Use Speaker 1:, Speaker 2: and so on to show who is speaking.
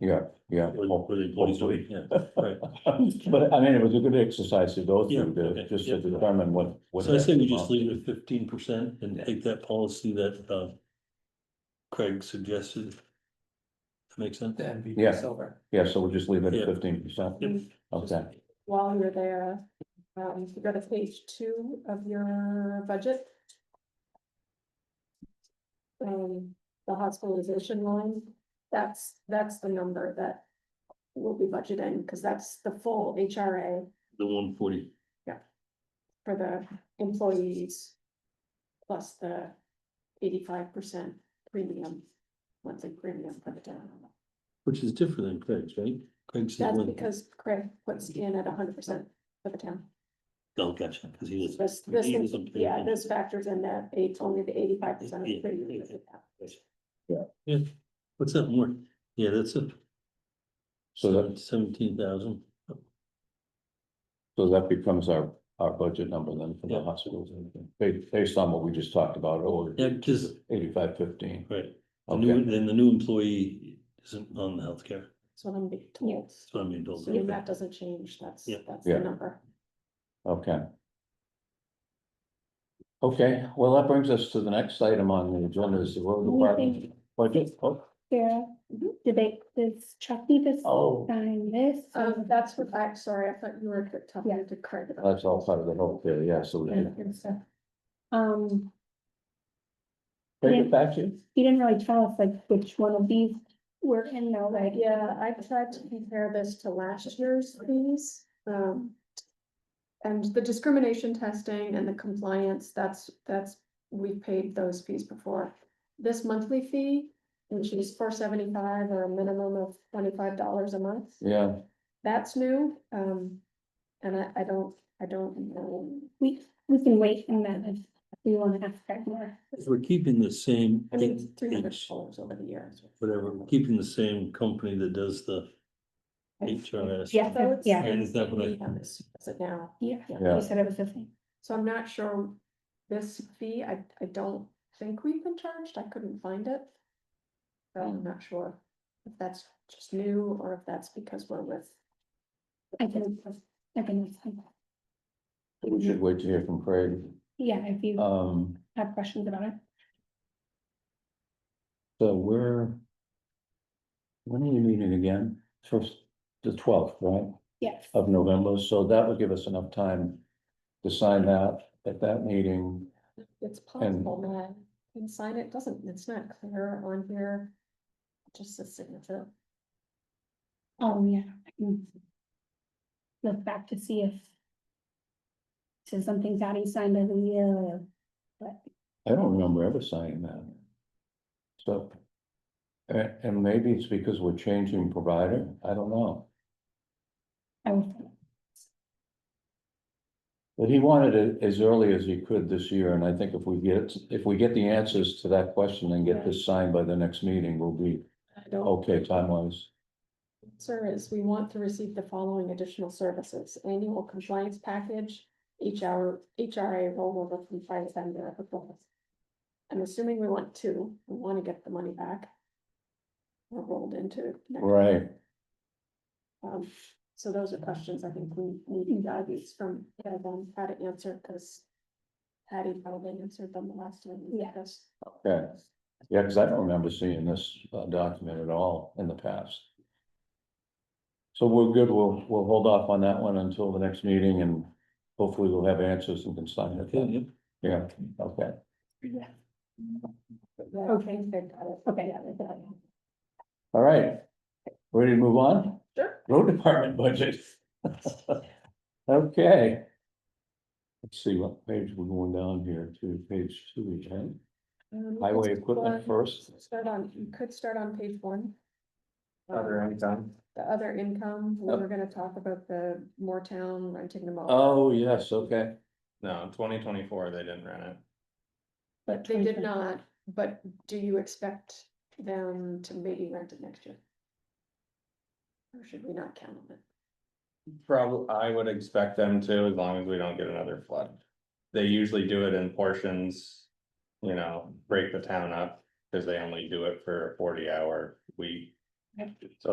Speaker 1: Yeah, yeah.
Speaker 2: With- with employees doing, yeah, right.
Speaker 1: But I mean, it was a good exercise to go
Speaker 2: Yeah,
Speaker 1: through to
Speaker 2: okay,
Speaker 1: just
Speaker 2: yeah.
Speaker 1: to determine what. what
Speaker 2: So I say we
Speaker 1: that
Speaker 2: just
Speaker 1: amount-
Speaker 2: leave it at fifteen percent and take that policy that, uh, Craig suggested. That makes sense?
Speaker 3: The
Speaker 1: Yeah.
Speaker 3: MVP silver.
Speaker 1: Yeah, so we'll just leave it at
Speaker 2: Yeah.
Speaker 1: fifteen percent.
Speaker 2: Yep.
Speaker 1: Okay,
Speaker 4: While you're there, um, if you go to page two of your budget. Um, the hospitalization line, that's, that's the number that we'll be budgeting, because that's the full HRA
Speaker 2: The one forty,
Speaker 4: for the employees. Plus the eighty-five percent premium, monthly premium for the town.
Speaker 2: which is different than Craig's, right? Craig's. is
Speaker 4: That's
Speaker 2: one-
Speaker 4: because Craig puts in at hundred percent for the town.
Speaker 2: Oh, gotcha, because he was.
Speaker 4: This,
Speaker 2: he
Speaker 4: this,
Speaker 2: was
Speaker 4: is-
Speaker 2: a big
Speaker 4: yeah,
Speaker 2: one.
Speaker 4: this factors in that eight, only the eighty-five percent of the
Speaker 2: Yeah,
Speaker 4: premium.
Speaker 2: yeah,
Speaker 4: is
Speaker 2: Yeah, what's that more? Yeah, that's a
Speaker 1: so that,
Speaker 2: seventeen thousand.
Speaker 1: so that becomes our, our budget number then for the
Speaker 2: Yeah.
Speaker 1: hospitals. Based, based on what we just talked about, or
Speaker 2: Yeah, because,
Speaker 1: eighty-five fifteen.
Speaker 2: right, the new,
Speaker 1: Okay,
Speaker 2: then the new employee isn't on the healthcare,
Speaker 4: That's what I'm being told.
Speaker 2: that's what I mean.
Speaker 4: So if that doesn't change, that's,
Speaker 2: Yeah.
Speaker 4: that's
Speaker 1: Yeah.
Speaker 4: the number.
Speaker 1: okay. Okay, well, that brings us to the next item on the agenda is the road department budget. Oh,
Speaker 5: Sarah, did they, does Chuck need to
Speaker 1: Oh,
Speaker 5: sign this?
Speaker 4: Um, that's what, I'm sorry, I thought you were talking to Craig. about
Speaker 1: that's all part of the whole thing, yeah, so we
Speaker 4: that
Speaker 1: can
Speaker 4: and stuff.
Speaker 5: Um,
Speaker 1: take it back to you.
Speaker 5: you didn't really tell us like which one of these were in though, like.
Speaker 4: Yeah, I tried to compare this to last year's fees, um. And the discrimination testing and the compliance, that's, that's, we paid those fees before. This monthly fee, which is four seventy-five or a minimum of twenty-five dollars a month,
Speaker 1: Yeah,
Speaker 4: that's new, um. And I, I don't, I don't know,
Speaker 5: We, we can wait and then if we want to ask that more.
Speaker 2: We're keeping the same.
Speaker 4: I mean,
Speaker 2: eight
Speaker 4: it's three hundred
Speaker 2: inch,
Speaker 4: dollars over the years.
Speaker 2: Whatever, we're keeping the same company that does the HRS.
Speaker 5: Yeah.
Speaker 4: So it's-
Speaker 5: Yeah.
Speaker 2: And is that what I-
Speaker 4: We have this, is it now?
Speaker 5: Yeah,
Speaker 1: Yeah.
Speaker 5: you said it was the same.
Speaker 4: So I'm not sure this fee, I, I don't think we've been charged, I couldn't find it. So I'm not sure if that's just new or if that's because we're with,
Speaker 5: I can, I can,
Speaker 1: we should wait to hear from Craig.
Speaker 5: yeah, if you
Speaker 1: Um,
Speaker 5: have questions about it.
Speaker 1: so we're. When are we meeting again? First, the twelfth, right,
Speaker 5: Yes.
Speaker 1: of November, so that would give us enough time. To sign that at that meeting,
Speaker 4: it's possible, man. Can sign it, doesn't, it's not clear on here. Just a signature.
Speaker 5: Oh, yeah. I can Look back to see if. So something's out, he signed uh, as a year or.
Speaker 1: I don't remember ever signing that. So. And, and maybe it's because we're changing provider, I don't know,
Speaker 5: I will,
Speaker 1: but he wanted it as early as he could this year, and I think if we get, if we get the answers to that question and get this signed by the next meeting, we'll be.
Speaker 4: I don't,
Speaker 1: Okay, time wise,
Speaker 4: sir, is we want to receive the following additional services, annual compliance package, each hour, HRA rollover compliance and their performance. I'm assuming we want two, we want to get the money back. Or rolled into. next
Speaker 1: right,
Speaker 4: Um, so those are questions I think we need guidance from Ed on how to answer, because Patty probably answered them the last time. we
Speaker 5: Yeah.
Speaker 4: discussed.
Speaker 1: okay. Yeah, because I don't remember seeing this uh, document at all in the past. So we're good, we'll, we'll hold off on that one until the next meeting and hopefully we'll have answers and can sign it.
Speaker 2: Okay,
Speaker 1: then.
Speaker 2: yep.
Speaker 1: Yeah, okay,
Speaker 5: yeah,
Speaker 4: Yeah, I
Speaker 5: Okay.
Speaker 4: think they've got it.
Speaker 5: Okay.
Speaker 4: Yeah, they've got it.
Speaker 1: all right. Ready to move on?
Speaker 4: Sure.
Speaker 1: Road department budget. Okay. Let's see what page we're going down here to, page two, right?
Speaker 4: Um, you
Speaker 1: Highway
Speaker 4: could
Speaker 1: equipment
Speaker 4: start-
Speaker 1: first,
Speaker 4: Start on, you could start on page one.
Speaker 3: Are there any done?
Speaker 4: The other income, we
Speaker 1: Oh.
Speaker 4: were gonna talk about the more town renting them all.
Speaker 1: oh, yes, okay,
Speaker 3: No, twenty twenty-four, they didn't run it.
Speaker 5: but
Speaker 4: They did
Speaker 5: 25
Speaker 4: not, but do you expect them to maybe rent it next year? Or should we not count on it?
Speaker 3: Probably, I would expect them to, as long as we don't get another flood. They usually do it in portions, you know, break the town up, because they only do it for a forty hour week.
Speaker 5: Okay.
Speaker 3: So